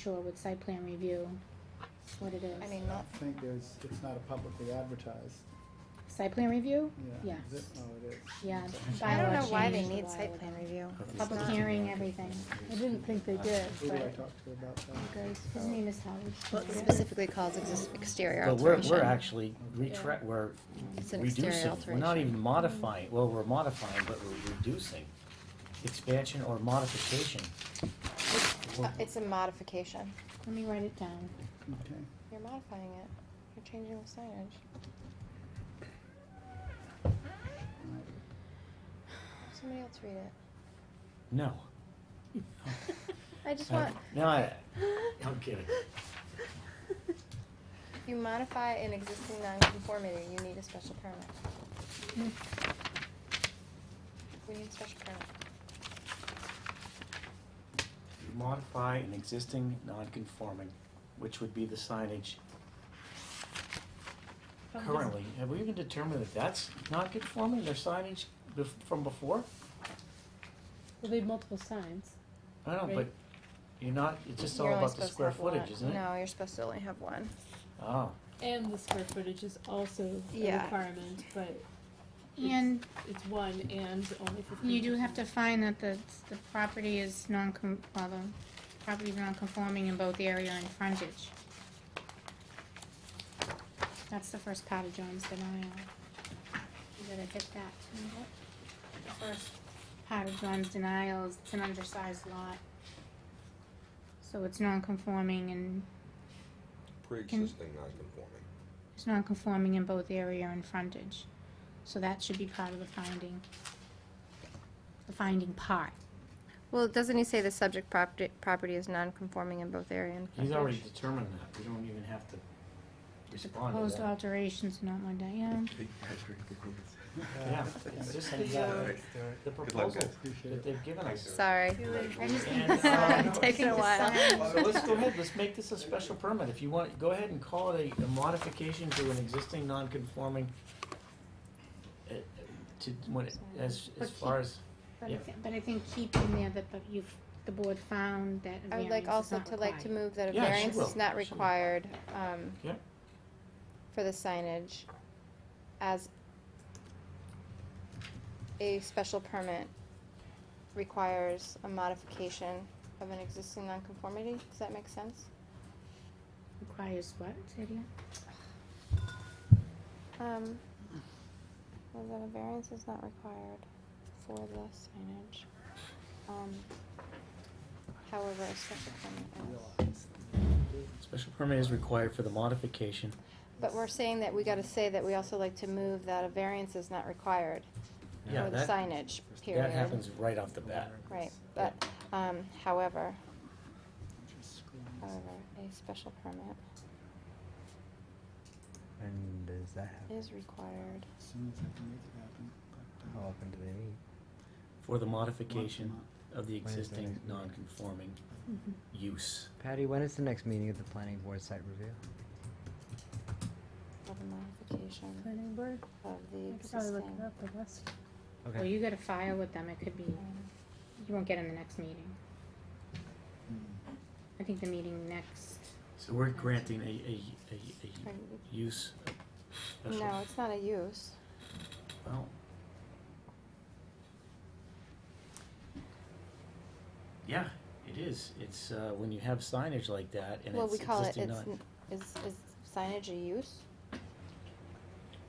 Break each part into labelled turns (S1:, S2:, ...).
S1: sure with site plan review, what it is.
S2: I mean,
S3: I
S2: not,
S3: think there's, it's not a publicly advertised,
S1: Site plan review?
S3: yeah.
S1: Yeah.
S3: Is it? Oh, it is.
S1: Yeah,
S3: Okay.
S2: I don't know
S1: bylaw
S2: why they
S1: change, the
S2: need
S1: bylaw
S2: site
S1: would
S2: plan
S1: have-
S2: review.
S1: Public hearing, everything.
S4: I didn't think they did,
S3: Who do I
S4: but.
S3: talk to about that?
S1: His name is Howard.
S2: Well, it
S1: Schultz.
S2: specifically calls exis- exterior
S5: But we're,
S2: alteration.
S5: we're actually retra, we're
S2: It's an exterior
S5: reducing, we're not
S2: alteration.
S5: even modifying, well, we're modifying, but we're reducing expansion or modification.
S2: Uh, It's a modification.
S1: Let me write it down.
S3: Okay.
S2: You're modifying it. You're changing the signage. Somebody else read it.
S5: No.
S2: I just
S5: I-
S2: want,
S5: Uh, No, I, I'm kidding.
S2: if you modify an existing nonconformity, you need a special permit. We need a special permit.
S5: Modify an existing non-conforming, which would be the signage currently. Have we even determined that that's not conforming, their signage bef- from before?
S4: Well, they have multiple signs.
S5: I don't know, but
S4: Right.
S5: you're not, it's just all
S2: You're only
S5: about the
S2: supposed to
S5: square
S2: have one.
S5: footage, isn't it?
S2: No, you're supposed to only have one.
S5: Oh,
S4: And the square footage is also a
S2: Yeah.
S4: requirement, but
S1: And
S4: it's one and only fifteen.
S1: you do have to find that the, the property is non-com, well, the property's non-conforming in both area and frontage. That's the first part of John's denial. You gotta hit that. The first part of John's denial is it's an undersized lot. So it's non-conforming and,
S6: Pre-existing non-conforming.
S1: it's non-conforming in both area and frontage. So that should be part of the finding. The finding part.
S2: Well, doesn't he say the subject property, property is non-conforming in both area and
S5: he's already determined that, we don't even have to
S1: The
S5: respond to
S1: proposed
S5: that.
S1: alterations are not modified.
S5: Yeah,
S3: Okay.
S5: it's just
S3: Thank you.
S5: the, uh,
S3: Alright, alright.
S5: The
S6: Good luck,
S5: proposal
S6: guys.
S3: Appreciate
S5: that
S3: it.
S5: they've given us.
S2: Sorry.
S1: I just need
S5: And,
S1: to sign.
S5: uh,
S2: Taking a while.
S5: So let's go ahead, let's make this a special permit, if you want, go ahead and call it a, a modification to an existing non-conforming, uh, uh, to, when, it- as, as
S1: But
S5: far as,
S1: But I
S5: Yeah.
S1: thi- But I think keep in there that, but you've, the board found that a
S2: I would
S1: variance
S2: like
S1: is
S2: also
S1: not
S2: to like to
S1: required.
S2: move that a
S5: Yeah, she
S2: variance
S5: will.
S2: is not
S5: She will.
S2: required, um,
S5: Yeah.
S2: for the signage as a special permit requires a modification of an existing nonconformity, does that make sense?
S1: Requires what, say it again?
S2: Um, well, then a variance is not required for the signage. Um, however, a special permit is.
S3: Realize.
S5: special permit is required for the modification.
S2: But we're saying that we gotta say that we also like to move that a variance is not required
S5: Yeah,
S2: for the
S5: that-
S2: signage, period.
S5: That happens right off the bat.
S2: Right, but, um, however,
S3: Just scrolling this.
S2: however, a special permit
S7: And does that happen?
S2: is required.
S3: As soon as I can make it happen, but, uh,
S5: Oh,
S7: How often do they meet?
S5: For the
S3: once a
S5: modification
S3: month.
S5: of the
S7: When is the
S5: existing
S7: next meeting?
S5: non-conforming use.
S7: Patty, when is the next meeting of the planning board site review?
S2: For the modification
S4: Planning board,
S2: of
S4: I
S2: the
S4: could probably look it
S2: existing.
S4: up, the list.
S1: Well,
S7: Okay.
S1: you gotta file with them, it could be,
S2: um,
S1: you won't get in the next meeting.
S3: Hmm.
S1: I think the meeting next,
S5: So we're granting a, a, a,
S2: or-
S5: a use special.
S2: No, it's not a use.
S5: Well. Yeah, it is. It's, uh, when you have signage like that and
S2: Well,
S5: it's
S2: we call it,
S5: existing
S2: it's,
S5: non.
S2: n- is, is signage a use?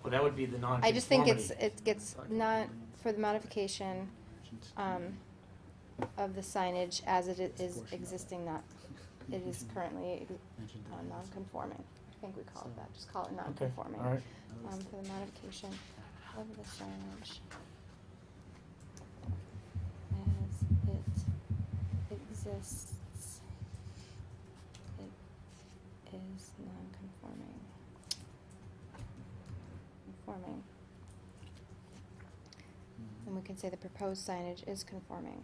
S5: Well, that would be the non
S2: I just think it's, it gets not, for the modification, um, of the signage as it i- is existing, not, it is currently
S3: Mentioned
S2: uh,
S3: that.
S2: non-conforming. I think we call it that, just call it
S5: Okay,
S2: non-conforming.
S5: all right.
S2: Um, for the modification of the signage as it exists, it is non-conforming. Conforming,
S3: hmm.
S2: and we can say the proposed signage is conforming.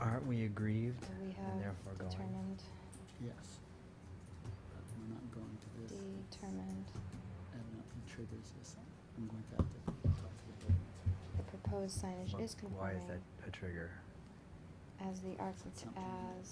S7: Aren't we aggrieved
S2: So we
S7: and
S2: have
S7: therefore going?
S2: determined,
S3: Yes. But We're not going to this.
S2: determined
S3: And nothing triggers this. I'm going to have to talk to the building. inspector.
S2: the proposed signage
S7: Wha-
S2: is
S7: Why is
S2: conforming
S7: that a trigger?
S2: as the architect, as